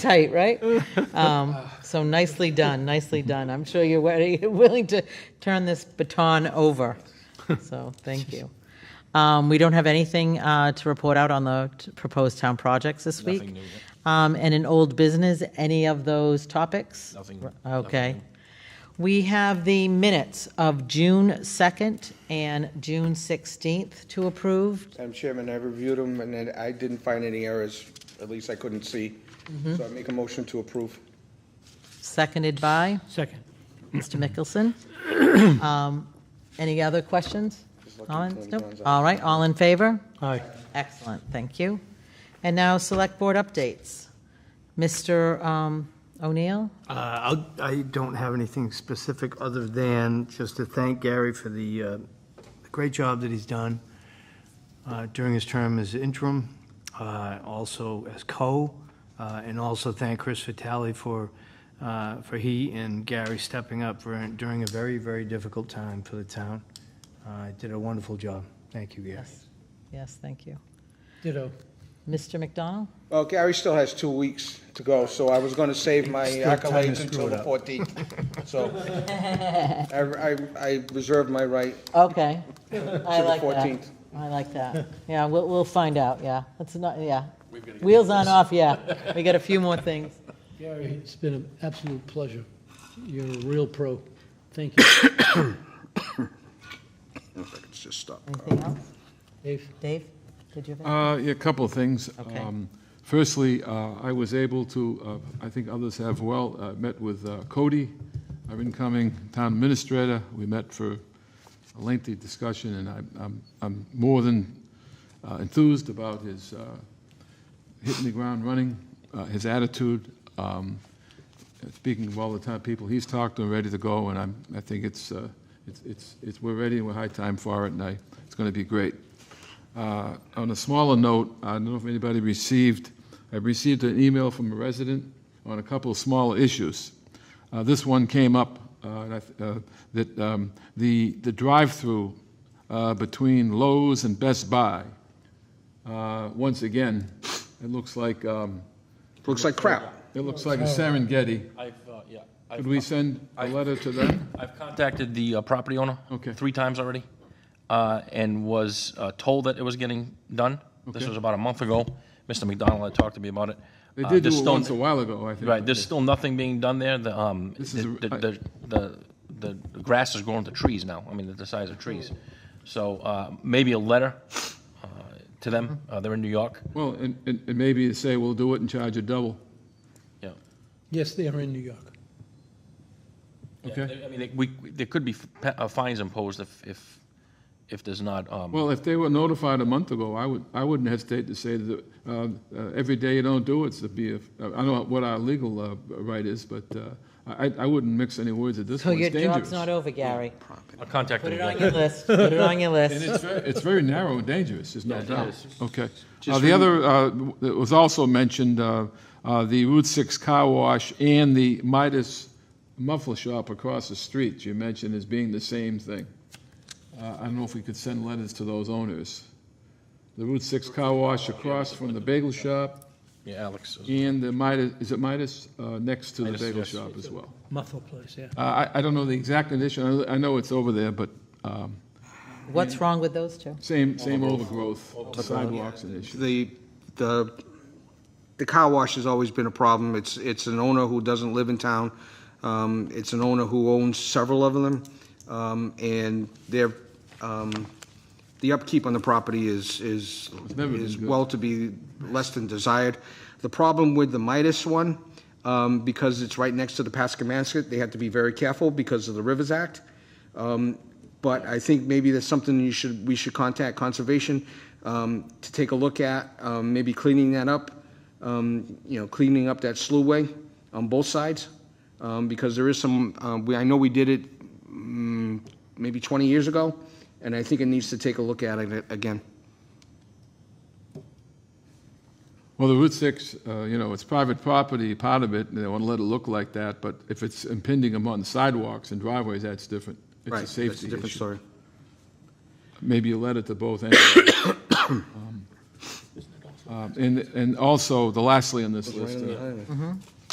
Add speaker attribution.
Speaker 1: tight, right? Um, So nicely done, nicely done. I'm sure you're ready, willing to turn this baton over. So, thank you. Um, We don't have anything uh, to report out on the t- proposed town projects this week.
Speaker 2: Nothing new,
Speaker 1: Um, And in old business, any of those topics?
Speaker 2: Nothing new,
Speaker 1: Okay.
Speaker 2: nothing
Speaker 1: We have the minutes of June 2nd and June 16th to approve.
Speaker 3: Madam Chairman, I reviewed them, and then I didn't find any errors, at least I couldn't see.
Speaker 4: Mm-hmm.
Speaker 3: So I make a motion to approve.
Speaker 1: Seconded by
Speaker 5: Second.
Speaker 1: Mr. Mickelson. Um, Any other questions?
Speaker 3: Just looking
Speaker 1: Comments?
Speaker 3: for any
Speaker 1: Nope.
Speaker 3: ones.
Speaker 1: All right, all in favor?
Speaker 5: Aye.
Speaker 1: Excellent, thank you. And now, Select Board updates. Mr. um, O'Neill?
Speaker 4: Uh, I'll- I don't have anything specific other than just to thank Gary for the uh, great job that he's done uh, during his term as interim, uh, also as co, uh, and also thank Chris Vitale for, uh, for he and Gary stepping up for- during a very, very difficult time for the town. Uh, Did a wonderful job. Thank you, Gary.
Speaker 1: Yes, thank you.
Speaker 5: Ditto.
Speaker 1: Mr. McDonald?
Speaker 3: Well, Gary still has two weeks to go, so I was gonna save my
Speaker 4: Still time to
Speaker 3: accolades
Speaker 4: screw
Speaker 3: until
Speaker 4: it
Speaker 3: the
Speaker 4: up.
Speaker 3: fourteenth, so. I, I, I reserve my right
Speaker 1: Okay. I
Speaker 3: to the
Speaker 1: like that.
Speaker 3: fourteenth.
Speaker 1: I like that. Yeah, we'll, we'll find out, yeah. That's not, yeah. Wheels on off, yeah. We got a few more things.
Speaker 5: Gary, it's been an absolute pleasure. You're a real pro. Thank you,
Speaker 3: Let's just stop.
Speaker 1: Anything else?
Speaker 5: Dave.
Speaker 1: Dave, did you have anything?
Speaker 6: Uh, yeah, a couple of things.
Speaker 1: Okay.
Speaker 6: Um, Firstly, uh, I was able to, uh, I think others have well, uh, met with uh, Cody, our incoming town administrator. We met for a lengthy discussion, and I'm- I'm, I'm more than uh, enthused about his uh, hitting the ground running, uh, his attitude, um, speaking of all the time, people he's talked to and ready to go, and I'm, I think it's, uh, it's- it's, it's, we're ready, and we're high time for it, and I, it's going to be great. Uh, On a smaller note, I don't know if anybody received, I received an email from a resident on a couple of smaller issues. Uh, This one came up, uh, and I th- uh, that um, the, the drive-through uh, between Lowe's and Best Buy, uh, once again, it looks like, um,
Speaker 3: Looks like crap.
Speaker 6: it looks like a Serengeti.
Speaker 2: I've, uh, yeah,
Speaker 6: Could
Speaker 2: I've,
Speaker 6: we send a letter to them?
Speaker 2: I've contacted the uh, property owner.
Speaker 6: Okay.
Speaker 2: Three times already, uh, and was uh, told that it was getting done. This
Speaker 6: Okay.
Speaker 2: was about a month ago. Mr. McDonald had talked to me about it.
Speaker 6: They
Speaker 2: Uh,
Speaker 6: did
Speaker 2: there's
Speaker 6: do it
Speaker 2: still-
Speaker 6: once a while ago, I think.
Speaker 2: Right, there's still nothing being done there. The, um,
Speaker 6: This is
Speaker 2: the-
Speaker 6: a-
Speaker 2: the, the, the, the grass is growing to trees now. I mean, the- the size of trees. So, uh, maybe a letter, uh, to them.
Speaker 6: Mm-hmm.
Speaker 2: Uh, they're in New York.
Speaker 6: Well, and, and and maybe you say, we'll do it and charge you double.
Speaker 2: Yeah.
Speaker 5: Yes, they are in New York.
Speaker 2: Yeah,
Speaker 6: Okay.
Speaker 2: they- I mean, they- we, there could be f- pe- uh, fines imposed if, if, if there's not, um,
Speaker 6: Well, if they were notified a month ago, I would, I wouldn't hesitate to say that, uh, uh, every day you don't do it, it's to be, a- uh, I don't know what our legal, uh, right is, but, uh, I, I wouldn't mix any words at this
Speaker 1: So
Speaker 6: point.
Speaker 1: your
Speaker 6: It's
Speaker 1: job's
Speaker 6: dangerous.
Speaker 1: not over, Gary.
Speaker 2: I'll contact
Speaker 1: Put
Speaker 2: them.
Speaker 1: it on your list, put it on your
Speaker 6: And
Speaker 1: list.
Speaker 6: it's very, it's very narrow and dangerous, there's no
Speaker 2: it
Speaker 6: doubt.
Speaker 2: is.
Speaker 6: Okay. Uh, The other, uh, w- that was also mentioned, uh, uh, the Route 6 Car Wash and the Midas Muffler Shop across the street, you mentioned as being the same thing. Uh, I don't know if we could send letters to those owners. The Route 6 Car Wash across from the bagel shop
Speaker 2: Yeah, Alex. is-
Speaker 6: and the Midas, is it Midas, Uh, next to the
Speaker 2: Midas,
Speaker 6: bagel
Speaker 2: yes.
Speaker 6: shop as well.
Speaker 5: Muffle place, yeah.
Speaker 6: Uh, I I don't know the exact condition, I- I know it's over there, but um,
Speaker 1: What's wrong with those two?
Speaker 6: same, same overgrowth, sidewalks and issues.
Speaker 3: The, the, the car wash has always been a problem. It's, it's an owner who doesn't live in town. Um, It's an owner who owns several of them. Um, And their, um, the upkeep on the property is, is,
Speaker 6: never been
Speaker 3: is
Speaker 6: good.
Speaker 3: well to be less than desired. The problem with the Midas one, um, because it's right next to the Pascamasket, they have to be very careful because of the Rivers Act. Um, But I think maybe that's something you should, we should contact Conservation um, to take a look at, um, maybe cleaning that up, um, you know, cleaning up that sluway on both sides, um, because there is some, um, we- I know we did it mm, maybe 20 years ago, and I think it needs to take a look at it again.
Speaker 6: Well, the Route 6, uh, you know, it's private property, part of it, and they want to let it look like that, but if it's impinging upon sidewalks and driveways, that's different. It's
Speaker 3: Right,
Speaker 6: a
Speaker 3: that's
Speaker 6: safety
Speaker 3: different
Speaker 6: issue.
Speaker 3: story.
Speaker 6: Maybe a letter to both ends. Um, Um, And, and also, the lastly on this list, uh,